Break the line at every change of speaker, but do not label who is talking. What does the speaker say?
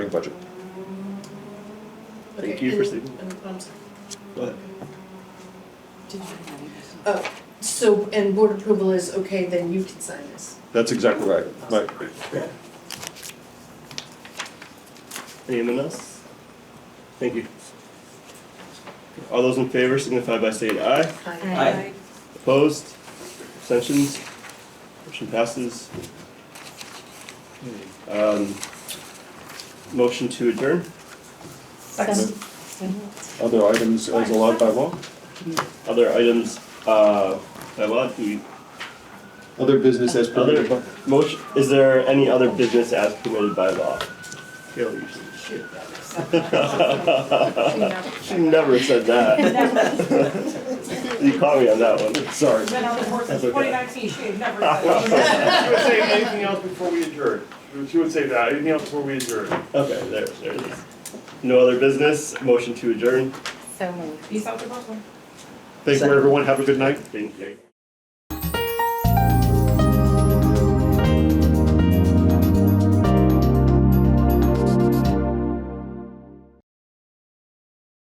budget.
Thank
Okay,
you for
and-
saving-
and- I'm sorry.
Go ahead.
Oh, so, and board approval is, okay, then you can sign this.
That's exactly right, right.
Anyone else? Thank you. All those in favor signify by saying aye.
Hi.
Aye.
Aye.
Opposed? Abstentions? Motion passes. Um, motion to adjourn.
Second. Other items as allowed by law?
Other items, uh, by law, do we,
Other business as permitted by?
other, motion, is there any other business as permitted by law? Gail usually. She never said that. You caught me on that one.
Sorry.
Been on the board since
That's okay.
2019, she had never said.
She would say anything else before we adjourn. She would say that, anything else before we adjourn.
Okay, there, there it is. No other business, motion to adjourn.
So moved.
Peace out to Brooklyn.
Thank you, everyone. Have a good night.
Thank you.